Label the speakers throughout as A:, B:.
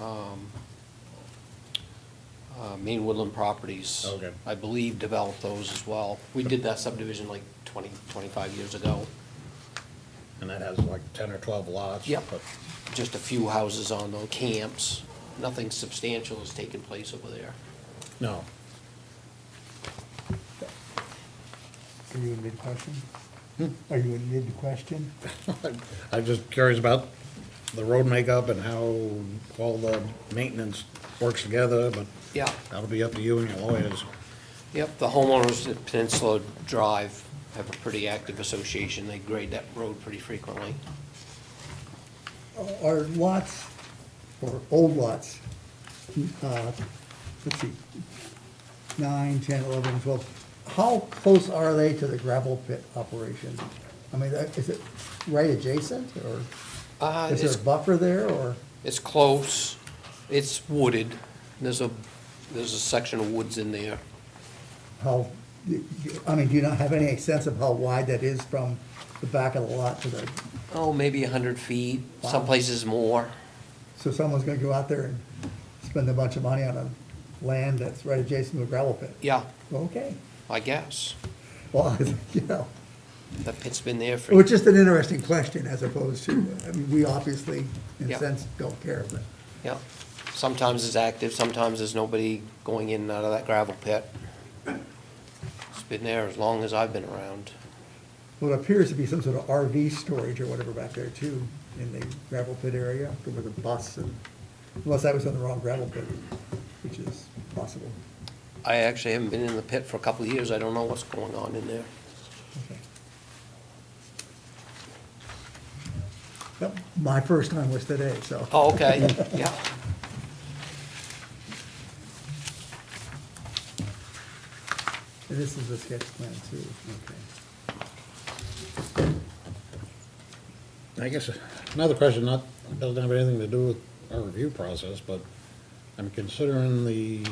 A: um, uh, Main Woodland Properties.
B: Okay.
A: I believe developed those as well. We did that subdivision like 20, 25 years ago.
B: And that has like ten or twelve lots.
A: Yep.
B: but-
A: Just a few houses on those camps. Nothing substantial has taken place over there.
B: No,
C: Are you in mid-question? Are you in mid-question?
B: I'm just curious about the road makeup and how all the maintenance works together, but
A: Yeah.
B: that'll be up to you and your lawyers.
A: Yep, the homeowners at Peninsula Drive have a pretty active association. They grade that road pretty frequently.
C: Uh, Are lots, or old lots, uh, let's see, nine, ten, eleven, twelve, how close are they to the gravel pit operation? I mean, that- is it right adjacent, or
A: Uh,
C: is there
A: it's
C: a buffer there, or?
A: It's close, it's wooded, there's a, there's a section of woods in there.
C: how, I mean, do you not have any sense of how wide that is from the back of the lot to the,
A: Oh, maybe a hundred feet, some
C: Wow.
A: places more.
C: so someone's gonna go out there and spend a bunch of money on a land that's right adjacent to a gravel pit?
A: Yeah,
C: Okay,
A: I guess.
C: well, you know,
A: That pit's been there for,
C: it's just an interesting question as opposed to, I mean, we obviously, in a
A: Yeah.
C: sense, don't care, but,
A: yeah. Sometimes it's active, sometimes there's nobody going in and out of that gravel pit. It's been there as long as I've been around.
C: well, it appears to be some sort of RV storage or whatever back there too, in the gravel pit area, with a bus and, unless I was on the wrong gravel pit, which is possible.
A: I actually haven't been in the pit for a couple of years, I don't know what's going on in there.
C: Okay. Yep, My first time was today, so.
A: Oh, okay, yeah.
C: And This is the sketch plan too, okay.
B: I guess another question, not, doesn't have anything to do with our review process, but I'm considering the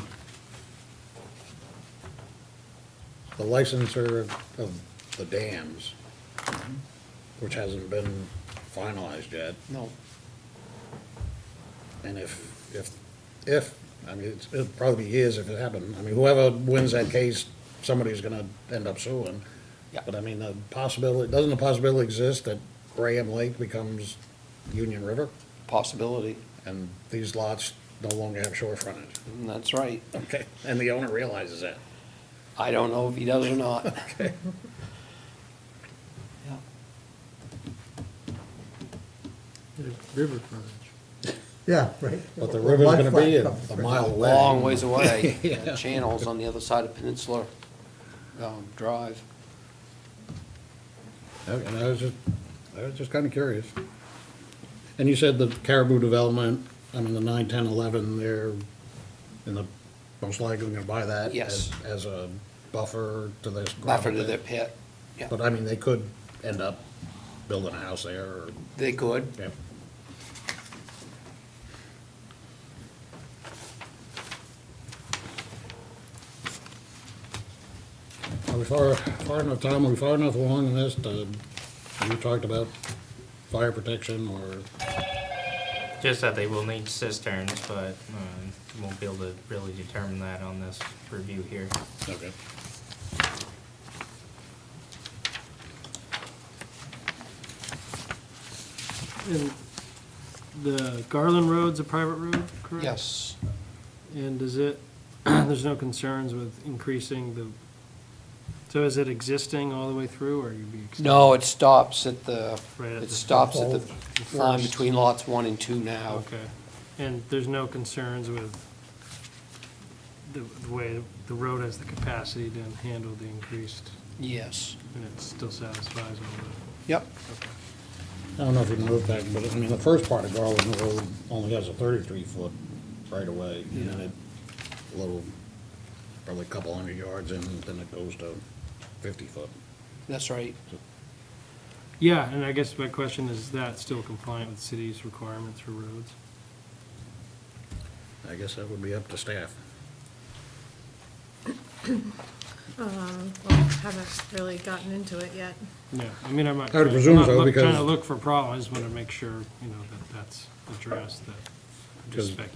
B: the licensor of the dams, which hasn't been finalized yet.
A: No,
B: And if, if, if, I mean, it's- it'll probably be years if it happened. I mean, whoever wins that case, somebody's gonna end up suing.
A: Yeah.
B: But I mean, the possibility, doesn't the possibility exist that Graham Lake becomes Union River?
A: possibility,
B: And these lots no longer have shore frontage?
A: that's right.
B: Okay, and the owner realizes that.
A: I don't know if he does or not. Yeah.
D: River frontage.
C: Yeah, right.
B: But the
C: Or
B: river's gonna
C: lifeline
B: be a
C: comes
B: a
C: from-
B: mile away.
A: Long ways away.
B: Yeah.
A: That Channel's on the other side of Peninsula um, Drive.
B: Okay, and I was just, I was just kinda curious. And you said the Caribou Development, I mean, the nine, ten, eleven, they're in the, most likely gonna buy that
A: Yes.
B: as, as a buffer to this.
A: Buffer
B: gravel
A: to their
B: pit.
A: pit. Yeah,
B: But I mean, they could end up building a house there or,
A: they could.
B: yeah. Are we far, far enough, Tom, are we far enough along in this to, you talked about fire protection or,
E: Just that they will need cisterns, but um, you won't be able to really determine that on this review here.
B: okay.
D: And the Garland Road's a private road, correct?
A: Yes.
D: And does it, there's no concerns with increasing the, so is it existing all the way through, or you'd be? ex-
A: No, it stops at the,
D: Right at
A: it
D: the-
A: stops at the
D: The
A: line
D: first.
A: between lots one and two now.
D: Okay, and there's no concerns with the the way the road has the capacity to handle the increased,
A: Yes.
D: and it still satisfies all
A: Yep.
B: I don't know if you know that, but I mean, the first part of Garland Road only has a thirty-three foot right of way, and then it, a little, probably a couple hundred yards in, then it goes to fifty foot.
A: That's right.
D: the? Yeah, and I guess my question is, is that still compliant with city's requirements for roads?
B: I guess that would be up to staff.
F: Uh, Well, haven't really gotten into it yet.
D: Yeah, I mean, I'm not.
B: I would presume
D: not
B: so,
D: look- Trying
B: because-
D: to look for a problem, I just want to make sure, you know, that that's addressed, that, I'm
B: Because-
D: just speculating.